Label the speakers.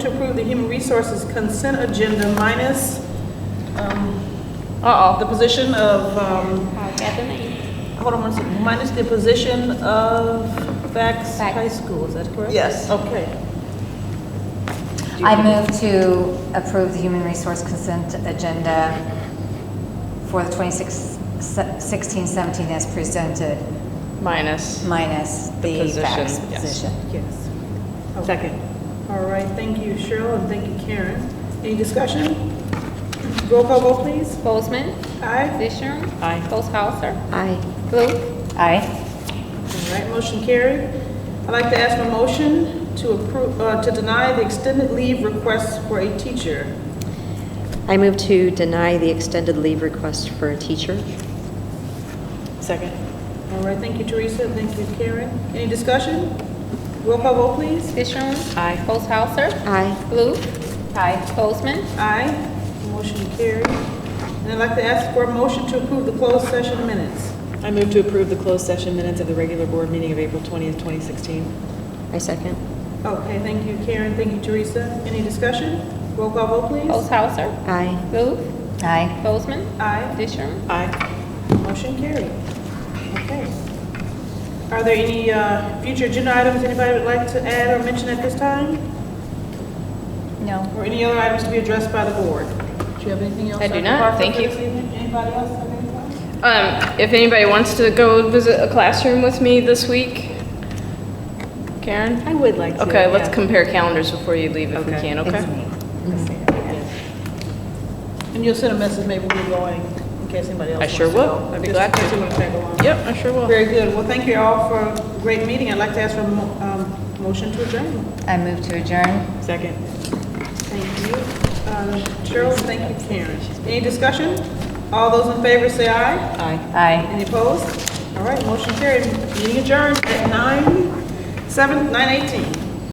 Speaker 1: To approve the human resources consent agenda minus, um, uh-oh, the position of, um,
Speaker 2: I got the name.
Speaker 1: hold on one second, minus the position of Vax
Speaker 2: Vax.
Speaker 1: High School, is that correct?
Speaker 3: Yes.
Speaker 1: Okay.
Speaker 4: I move to approve the human resource consent agenda for the 2016-17 as presented,
Speaker 5: Minus.
Speaker 4: minus the
Speaker 5: position,
Speaker 4: fax
Speaker 5: yes.
Speaker 4: position.
Speaker 1: Yes.
Speaker 5: Second.
Speaker 1: All right, thank you Cheryl and thank you Karen. Any discussion? Roll call vote please.
Speaker 2: Bozeman,
Speaker 1: Aye.
Speaker 2: Disharum.
Speaker 5: Aye.
Speaker 2: Posthauser,
Speaker 4: Aye.
Speaker 2: Luke,
Speaker 4: Aye.
Speaker 1: All right, motion carried. I'd like to ask for a motion to approve, uh, to deny the extended leave request for a teacher.
Speaker 6: I move to deny the extended leave request for a teacher.
Speaker 5: Second.
Speaker 1: All right, thank you, Teresa, thank you, Karen. Any discussion? Roll call vote, please.
Speaker 2: Disharum.
Speaker 5: Aye.
Speaker 2: Posthauser,
Speaker 6: Aye.
Speaker 2: Luke,
Speaker 4: Aye.
Speaker 2: Bozeman,
Speaker 1: Aye, motion carried. And I'd like to ask for a motion to approve the closed session minutes.
Speaker 5: I move to approve the closed session minutes of the regular board meeting of April 20th, 2016.
Speaker 6: I second.
Speaker 1: Okay, thank you, Karen, thank you, Teresa. Any discussion? Roll call vote, please.
Speaker 2: Posthauser,
Speaker 6: Aye.
Speaker 2: Luke,
Speaker 4: Aye.
Speaker 2: Bozeman,
Speaker 1: Aye,
Speaker 2: Disharum.
Speaker 5: Aye.
Speaker 1: motion carried. Okay. Are there any uh, future agenda items anybody would like to add or mention at this time?
Speaker 4: No.
Speaker 1: Or any other items to be addressed by the board? Do you have anything else?
Speaker 5: I do
Speaker 1: Dr.
Speaker 5: not,
Speaker 1: Parker,
Speaker 5: thank
Speaker 1: for
Speaker 5: you.
Speaker 1: this evening? Anybody else have anything?
Speaker 5: Um, if anybody wants to go visit a classroom with me this week, Karen?
Speaker 3: I would like to.
Speaker 5: Okay, let's
Speaker 3: yeah.
Speaker 5: compare calendars before you leave if we can, okay?
Speaker 1: And you'll send a message, maybe we're going, in case anybody else
Speaker 5: I
Speaker 1: wants
Speaker 5: sure
Speaker 1: to
Speaker 5: will.
Speaker 1: go.
Speaker 5: I'd
Speaker 1: Just
Speaker 5: be
Speaker 1: in
Speaker 5: glad to.
Speaker 1: case you wanna tag along.
Speaker 5: Yep, I sure will.
Speaker 1: Very good. Well, thank you all for a great meeting. I'd like to ask for a mo- um, motion to adjourn.
Speaker 4: I move to adjourn.
Speaker 5: Second.
Speaker 1: Thank you. Um, Cheryl, thank you, Karen. Any discussion? All those in favor say aye.
Speaker 5: Aye.
Speaker 4: Aye.
Speaker 1: Any opposed? All right, motion carried. Meeting adjourned at nine, seven, nine eighteen.